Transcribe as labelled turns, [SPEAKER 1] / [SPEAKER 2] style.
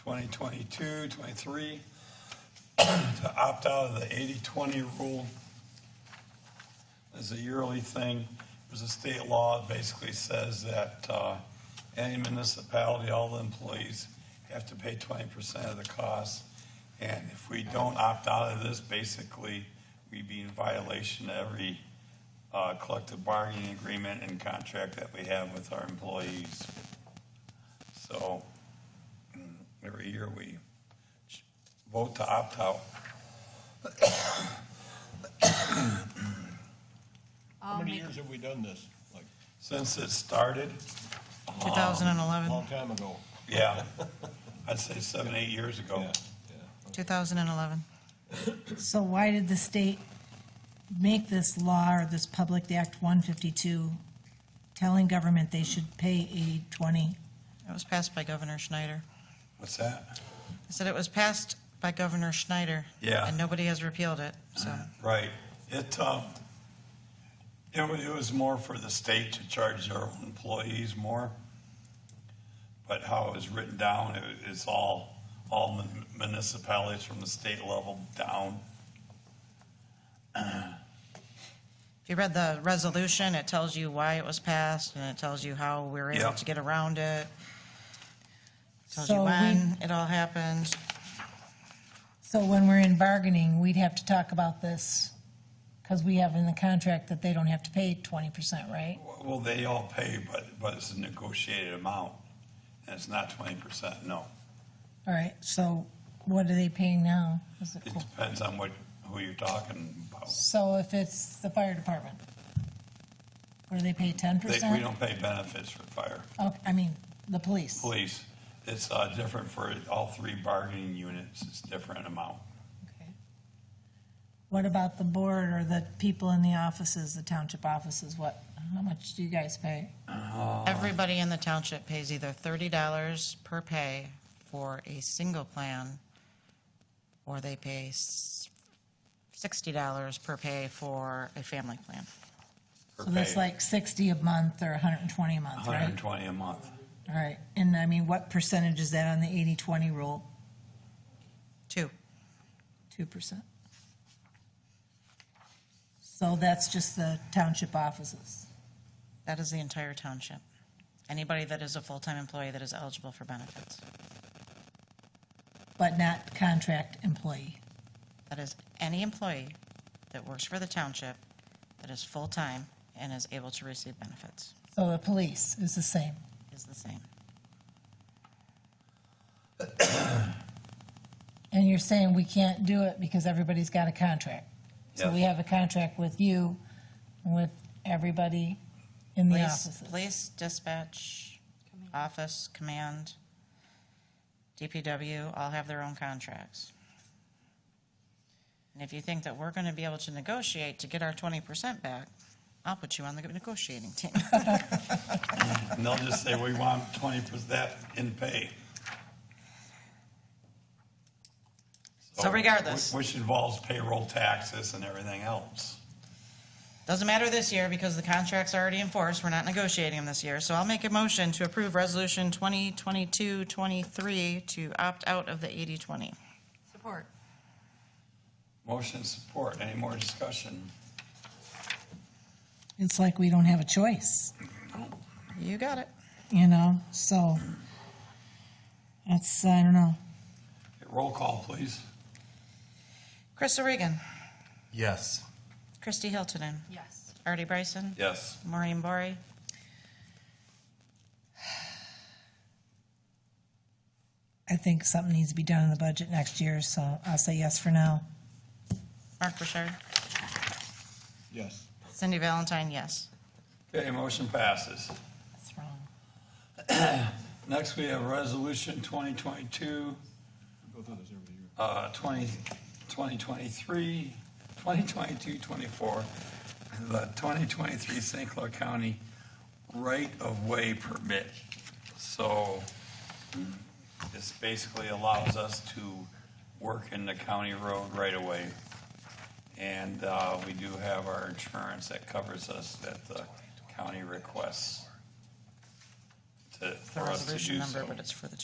[SPEAKER 1] 2022, 23, to opt out of the 80-20 rule as a yearly thing. There's a state law that basically says that uh, any municipality, all the employees have to pay 20% of the cost. And if we don't opt out of this, basically, we'd be in violation of every uh, collective bargaining agreement and contract that we have with our employees. So mm, every year we ch- vote to opt out.
[SPEAKER 2] How many years have we done this? Like,
[SPEAKER 1] Since it started,
[SPEAKER 3] 2011,
[SPEAKER 1] Um,
[SPEAKER 2] long time ago.
[SPEAKER 1] yeah, I'd say seven, eight years ago.
[SPEAKER 2] Yeah, yeah.
[SPEAKER 3] 2011.
[SPEAKER 4] So why did the state make this law or this public act one fifty-two telling government they should pay eighty twenty?
[SPEAKER 3] It was passed by Governor Schneider.
[SPEAKER 1] What's that?
[SPEAKER 3] I said it was passed by Governor Schneider.
[SPEAKER 1] Yeah. Uh-huh.
[SPEAKER 3] And nobody has repealed it, so.
[SPEAKER 1] Right. It, um, it was, it was more for the state to charge their own employees more. But how it was written down, it, it's all, all mun- municipalities from the state level down.
[SPEAKER 3] If you read the resolution, it tells you why it was passed, and it tells you how we were
[SPEAKER 1] Yeah.
[SPEAKER 3] able to get around it. Tells
[SPEAKER 4] So
[SPEAKER 3] you
[SPEAKER 4] we-
[SPEAKER 3] when it all happened.
[SPEAKER 4] So when we're in bargaining, we'd have to talk about this, because we have in the contract that they don't have to pay twenty percent, right?
[SPEAKER 1] Well, they all pay, but, but it's a negotiated amount. And it's not twenty percent, no.
[SPEAKER 4] All right, so what are they paying now? Is it
[SPEAKER 1] It
[SPEAKER 4] cool?
[SPEAKER 1] depends on what, who you're talking about.
[SPEAKER 4] So if it's the fire department, what do they pay, ten
[SPEAKER 1] They,
[SPEAKER 4] percent?
[SPEAKER 1] we don't pay benefits for fire.
[SPEAKER 4] Oh, I mean, the police.
[SPEAKER 1] Police, it's, uh, different for all three bargaining units, it's different amount.
[SPEAKER 4] Okay. What about the board or the people in the offices, the township offices? What, how much do you guys pay?
[SPEAKER 3] Everybody in the township pays either thirty dollars per pay for a single plan, or they pay s- sixty dollars per pay for a family plan.
[SPEAKER 1] per
[SPEAKER 4] So that's
[SPEAKER 1] pay.
[SPEAKER 4] like sixty a month or hundred and twenty a month,
[SPEAKER 1] Hundred
[SPEAKER 4] right?
[SPEAKER 1] and twenty a month.
[SPEAKER 4] All right, and I mean, what percentage is that on the eighty-twenty rule?
[SPEAKER 3] Two.
[SPEAKER 4] Two percent? So that's just the township offices.
[SPEAKER 3] That is the entire township. Anybody that is a full-time employee that is eligible for benefits.
[SPEAKER 4] but not contract employee.
[SPEAKER 3] That is any employee that works for the township that is full-time and is able to receive benefits
[SPEAKER 4] So the police is the same.
[SPEAKER 3] is the same.
[SPEAKER 4] And you're saying we can't do it because everybody's got a contract. So we
[SPEAKER 1] Yes.
[SPEAKER 4] have a contract with you, with everybody in the
[SPEAKER 3] Police,
[SPEAKER 4] offices.
[SPEAKER 3] police, dispatch, office, command, DPW, all have their own contracts. And if you think that we're gonna be able to negotiate to get our twenty percent back, I'll put you on the negotiating team.
[SPEAKER 1] And they'll just say, we want twenty percent that in pay.
[SPEAKER 3] So
[SPEAKER 1] Oh,
[SPEAKER 3] regardless.
[SPEAKER 1] Whi- Which involves payroll taxes and everything else.
[SPEAKER 3] Doesn't matter this year because the contract's already in force. We're not negotiating them this year. So I'll make a motion to approve Resolution 2022-23 to opt out of the 80-20.
[SPEAKER 5] Support.
[SPEAKER 1] Motion support, any more discussion?
[SPEAKER 4] It's like we don't have a choice,
[SPEAKER 3] You got it.
[SPEAKER 4] you know, so that's, I don't know.
[SPEAKER 1] Roll call, please.
[SPEAKER 3] Chris Regan,
[SPEAKER 6] Yes.
[SPEAKER 3] Christy Hiltonen,
[SPEAKER 5] Yes.
[SPEAKER 3] Artie Bryson,
[SPEAKER 1] Yes.
[SPEAKER 3] Maureen Bory.
[SPEAKER 4] I think something needs to be done in the budget next year, so I'll say yes for now.
[SPEAKER 3] Mark Burchard,
[SPEAKER 2] Yes.
[SPEAKER 3] Cindy Valentine, yes.
[SPEAKER 1] Okay, motion passes.
[SPEAKER 4] That's wrong.
[SPEAKER 1] Next, we have resolution twenty twenty-two,
[SPEAKER 2] Go through this every year.
[SPEAKER 1] uh, 20 2023, 2022, 24, the 2023 St. Clair County right-of-way permit. So this basically allows us to work in the county road right away. And uh, we do have our insurance that covers us that the county requests to,
[SPEAKER 3] The
[SPEAKER 1] for us to
[SPEAKER 3] resolution
[SPEAKER 1] do
[SPEAKER 3] number,
[SPEAKER 1] so.
[SPEAKER 3] but it's for the